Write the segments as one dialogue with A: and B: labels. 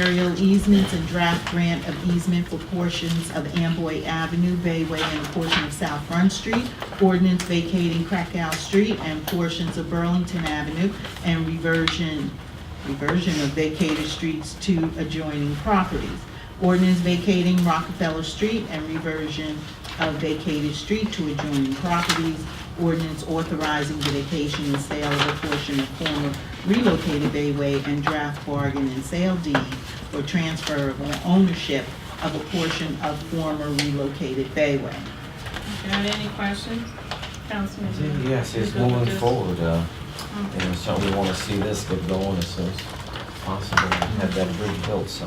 A: Aerial easements and draft grant of easement for portions of Amboy Avenue, Bayway, and a portion of South Front Street, ordinance vacating Krakow Street and portions of Burlington Avenue, and reversion, reversion of vacated streets to adjoining properties. Ordinance vacating Rockefeller Street and reversion of vacated street to adjoining properties. Ordinance authorizing the vacation and sale of a portion of former relocated Bayway and draft bargain and sale deed or transfer of ownership of a portion of former relocated Bayway.
B: Got any questions? Councilman Dean?
C: Yes,
B: You
C: it's
B: good with
C: moving
B: this?
C: forward, uh,
D: Mm-hmm.
C: and so we wanna see this get going as soon as possible, and have that bridge built, so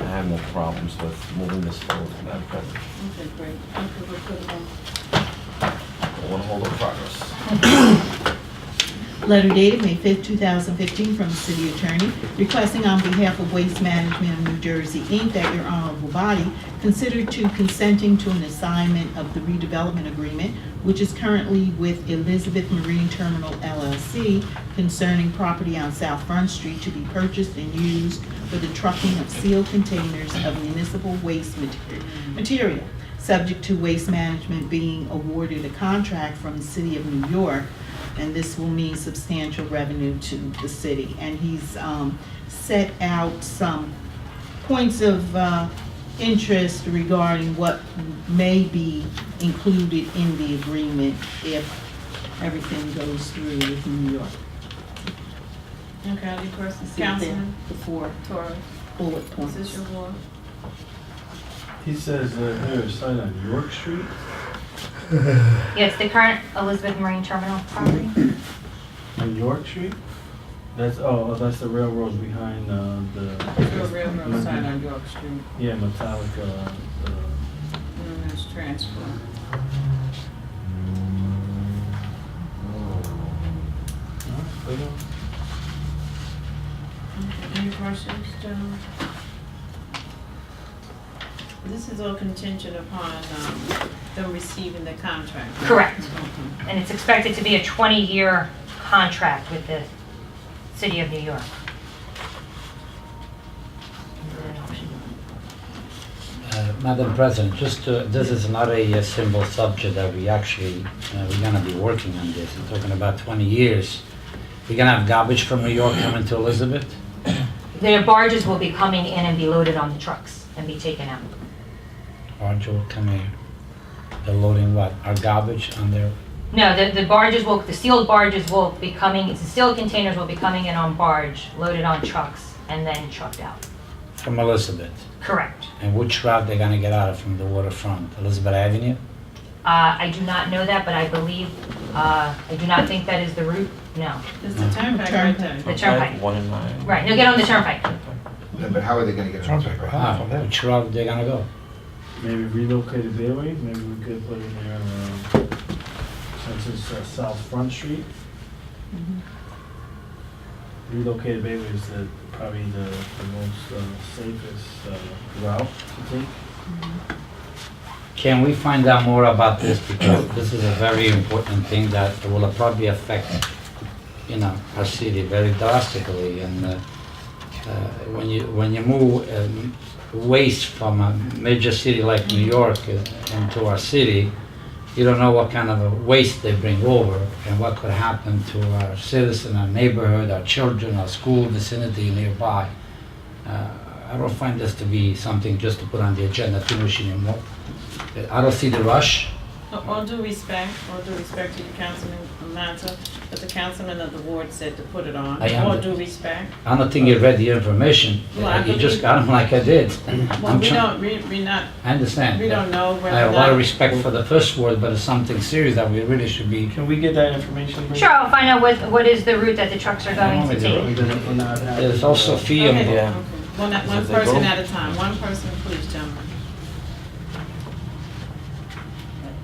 C: I have no problems with moving this forward, Madam President.
B: Okay, great. Okay, we'll put it on.
C: I wanna hold up progress.
A: Letter dated May 5, 2015, from the city attorney requesting on behalf of Waste Management of New Jersey, Inc., that your honorable body consider to consenting to an assignment of the redevelopment agreement, which is currently with Elizabeth Marine Terminal LLC concerning property on South Front Street to be purchased and used for the trucking of sealed containers of municipal waste materi- material, subject to Waste Management being awarded a contract from the city of New York and this will mean substantial revenue to the city. And he's um, set out some points of uh, interest regarding what may be included in the agreement if everything goes through with New York.
B: Okay, any questions?
A: See what they're-
B: Councilman
A: The four
B: Torres,
A: bullet
B: is this
A: points.
B: your ward?
E: He says uh, there is a sign on York Street.
D: Yes, the current Elizabeth Marine Terminal property.
E: On York Street? That's oh, that's the railroads behind uh, the
B: Your railroad sign on York Street.
E: yeah Metallica. Uh,
B: Mm, That's transfer.
E: uh,
B: Okay, Any questions, gentlemen? This is all contingent upon um, them receiving the contract. right?
D: Correct.
B: Okay.
D: And it's expected to be a 20-year contract with the City of New York.
F: Uh, Madam President, just to, this is not a uh, simple subject that we actually, uh, we're gonna be working on this. We're talking about 20 years. We're gonna have garbage from New York coming to Elizabeth?
D: The barges will be coming in and be loaded on the trucks and be taken out.
F: Aren't you coming, they're loading what, our garbage on their,
D: No, the, the barges will, the sealed barges will be coming, the sealed containers will be coming in on barge, loaded on trucks, and then trucked out.
F: from Elizabeth?
D: Correct.
F: And which route they're gonna get out of from the waterfront? Elizabeth Avenue?
D: Uh, I do not know that, but I believe, uh, I do not think that is the route, no.
B: It's the turnpike right there.
D: The turnpike.
C: One in nine.
D: Right, no, get on the turnpike.
G: No, but how are they gonna get around that? right?
F: Ah, Which route they're gonna go?
E: maybe relocated Bailey. Maybe we could put in there uh, since it's uh, South Front Street.
B: Mm-hmm.
E: Relocated Bailey is the, probably the, the most uh, safest uh, route to take.
F: Can we find out more about this because this is a very important thing that will probably affect, you know, our city very drastically. And uh, uh, when you when you move um, waste from a major city like New York uh, into our city, you don't know what kind of a waste they bring over and what could happen to our citizen, our neighborhood, our children, our school vicinity nearby. Uh, I don't find this to be something just to put on the agenda. I think we should more, I don't see the rush.
B: All due respect, all due respect to you, Councilman Mazza, but the councilman of the ward said to put it on.
F: I am.
B: All due respect.
F: I don't think you read the information.
B: Well, I
F: You
B: believe-
F: just got them like I did.
B: Well,
F: I'm
B: we don't,
F: trying,
B: we, we not,
F: I understand.
B: we don't know
F: I
B: whether.
F: have a lot of
B: that-
F: respect for the first word, but it's something serious that we really should be.
E: Can we get that information? please?
D: Sure, I'll find out what, what is the route that the trucks are going to take.
F: There's also fee
B: Okay,
F: involved.
C: Yeah.
B: okay. One, at- one
C: Is it
B: person
C: legal?
B: at a time, one person, please, gentlemen.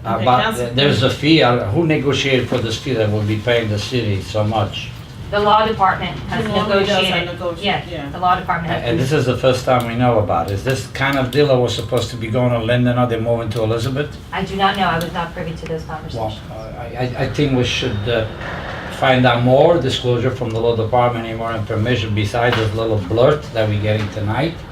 B: Okay,
F: About,
B: Council-
F: there's a fee, uh, who negotiated for this fee that will be paying the city so much?
D: The law department has
B: The law does have
D: negotiated.
B: negotiate, yeah.
D: Yeah, the law department
F: And and
D: has.
F: this is the first time we know about it. Is this kind of deal that was supposed to be going to Linden, are they moving to Elizabeth?
D: I do not know, I was not privy to those
F: Well,
D: conversations.
F: I, I- I think we should uh, find out more disclosure from the law department, any more information besides this little blurt that we're getting tonight.